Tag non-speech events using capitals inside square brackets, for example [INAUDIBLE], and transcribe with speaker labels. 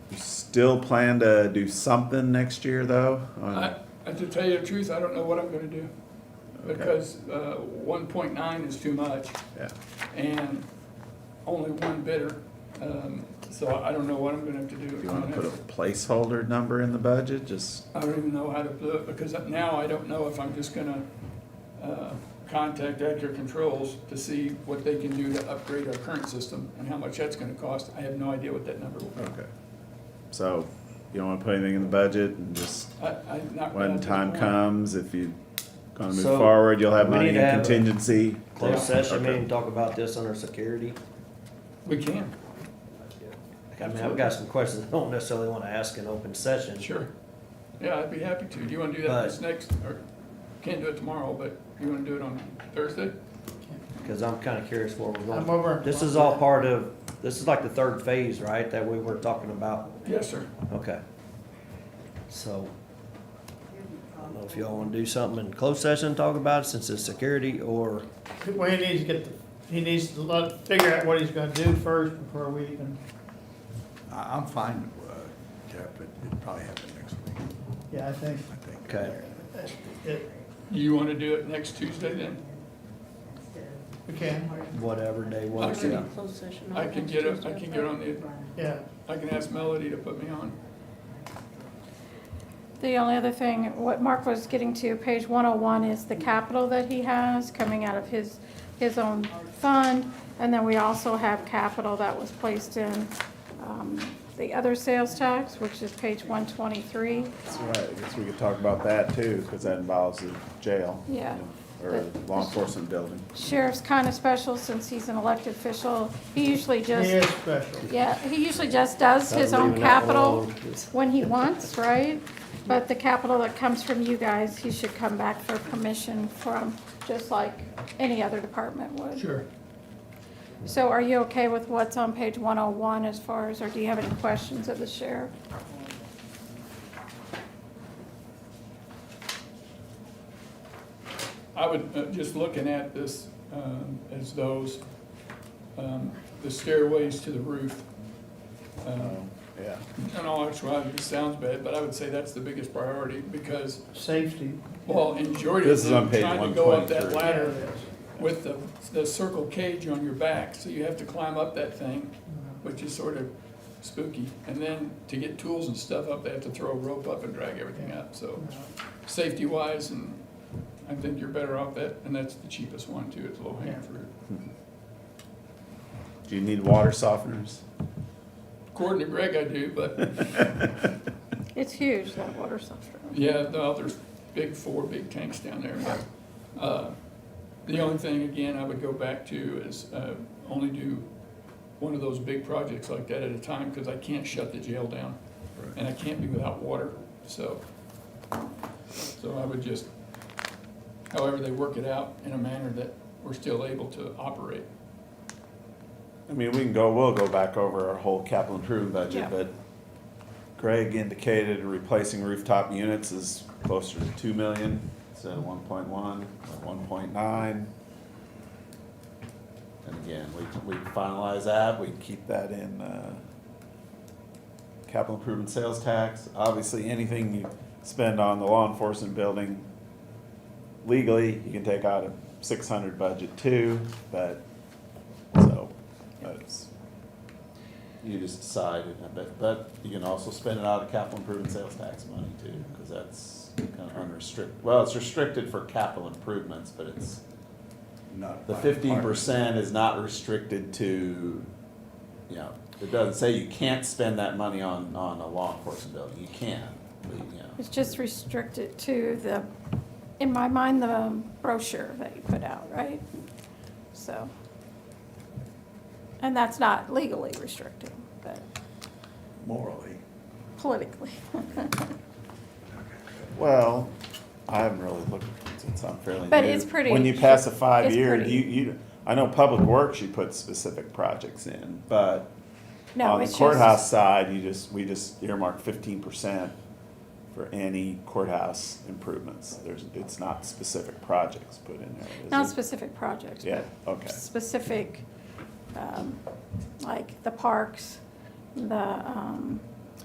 Speaker 1: still plan to do something next year, though? on-
Speaker 2: I, and to tell you the truth, I don't know what I'm gonna do, because, uh, one point nine is too much,
Speaker 1: Yeah,
Speaker 2: and only one bidder, um, so I don't know what I'm gonna have to do.
Speaker 1: do you wanna put a placeholder number in the budget, just,
Speaker 2: I don't even know how to do it, because now I don't know if I'm just gonna, uh, contact Edgar Controls to see what they can do to upgrade our current system, and how much that's gonna cost, I have no idea what that number will be.
Speaker 1: okay. So, you don't wanna put anything in the budget, and just,
Speaker 2: I, I not.
Speaker 1: Oh. when time comes, if you gonna move
Speaker 3: So,
Speaker 1: forward, you'll have
Speaker 3: we
Speaker 1: money
Speaker 3: need
Speaker 1: in
Speaker 3: to have a-
Speaker 1: contingency?
Speaker 3: Closed session
Speaker 1: Okay.
Speaker 3: meeting, talk about this under security.
Speaker 2: We can,
Speaker 3: I mean, I've got some questions I don't necessarily wanna ask in open session.
Speaker 2: sure, Uh, yeah, I'd be happy to, do you wanna do that this next, or, can't do it tomorrow, but you wanna do it on Thursday?
Speaker 3: Cause I'm kinda curious where we're
Speaker 4: I'm
Speaker 3: going.
Speaker 4: over.
Speaker 3: This is all part of, this is like the third phase, right, that we were talking about?
Speaker 2: Yes, sir.
Speaker 3: Okay. So, I don't know if y'all wanna do something in closed session, talk about it since it's security or,
Speaker 4: Well, he needs to get, the- he needs to look, figure out what he's gonna do first before we even,
Speaker 5: I- I'm fine, uh, Jeff, but it'll probably happen next week,
Speaker 4: yeah, I think.
Speaker 5: I think.
Speaker 3: okay.
Speaker 4: it-
Speaker 2: You wanna do it next Tuesday then?
Speaker 4: We can,
Speaker 3: Whatever day works,
Speaker 2: Okay.
Speaker 3: yeah.
Speaker 6: Closed session.
Speaker 2: I can get a- I can get on the-
Speaker 4: yeah.
Speaker 2: I can ask Melody to put me on.
Speaker 6: The only other thing, what Mark was getting to, page one oh one is the capital that he has coming out of his, his own fund. And then we also have capital that was placed in, um, the other sales tax, which is page one twenty-three.
Speaker 1: That's right, I guess we could talk about that too, cause that involves the jail.
Speaker 6: Yeah.
Speaker 1: Or law enforcement building.
Speaker 6: Sheriff's kind of special since he's an elected official. He usually
Speaker 4: He
Speaker 6: just.
Speaker 4: is special.
Speaker 6: Yeah, he usually just does his own
Speaker 3: Leaving that
Speaker 6: capital
Speaker 3: alone.
Speaker 6: when he wants, right? But the capital that comes from you guys, he should come back for permission from, just like any other department would.
Speaker 4: Sure.
Speaker 6: So are you okay with what's on page one oh one as far as, or do you have any questions of the sheriff?
Speaker 2: I would, uh, just looking at this, um, as those, um, the stairways to the roof. um,
Speaker 1: Yeah.
Speaker 2: In all actuality, it sounds bad, but I would say that's the biggest priority because,
Speaker 4: Safety.
Speaker 2: well, in Jordan,
Speaker 1: This is on page
Speaker 2: trying to go up that
Speaker 1: 123.
Speaker 2: ladder
Speaker 4: Yeah, it is.
Speaker 2: with the, the circle cage on your back, so you have to climb up that thing, which is sort of spooky. And then to get tools and stuff up, they have to throw a rope up and drag everything up, so safety wise and I think you're better off that, and that's the cheapest one too, it's low hanging fruit.
Speaker 1: Do you need water softeners?
Speaker 2: According to Greg, I do, but
Speaker 6: It's huge, that water softener.
Speaker 2: yeah, no, there's big, four big tanks down there. Uh, The only thing, again, I would go back to is uh, only do one of those big projects like that at a time, because I can't shut the jail down. And I can't be without water, so, so I would just, however they work it out in a manner that we're still able to operate.
Speaker 1: I mean, we can go, we'll go back over our whole capital improvement budget,
Speaker 6: Yeah.
Speaker 1: but Greg indicated replacing rooftop units is closer to two million instead of one point one or one point nine. And again, we, can- we can finalize that, we can keep that in, uh, capital improvement sales tax. Obviously, anything you spend on the law enforcement building legally, you can take out of six hundred budget too, but, so, but it's, you just decide, and I bet, but you can also spend it out of capital improvement sales tax money too, cause that's kind of unrestricted, well, it's restricted for capital improvements, but it's,
Speaker 5: Not
Speaker 1: the
Speaker 5: by
Speaker 1: fifteen
Speaker 5: department.
Speaker 1: percent is not restricted to, you know, it doesn't say you can't spend that money on, on a law enforcement building, you can, but, you know.
Speaker 6: It's just restricted to the, in my mind, the brochure that you put out, right? So. And that's not legally restricted, but
Speaker 5: Morally.
Speaker 6: politically. [LAUGHS]
Speaker 1: Well, I haven't really looked, since I'm fairly new.
Speaker 6: But it's pretty-
Speaker 1: When you pass a five
Speaker 6: it's
Speaker 1: year,
Speaker 6: pretty.
Speaker 1: you, you, I know Public Works, you put specific projects in, but
Speaker 6: No,
Speaker 1: on the
Speaker 6: it's
Speaker 1: courthouse
Speaker 6: just,
Speaker 1: side, you just, we just earmark fifteen percent for any courthouse improvements. There's, it's not specific projects put in there. is
Speaker 6: not
Speaker 1: it?
Speaker 6: specific projects.
Speaker 1: Yeah,
Speaker 6: but
Speaker 1: okay.
Speaker 6: Specific, um, like the parks, the, um,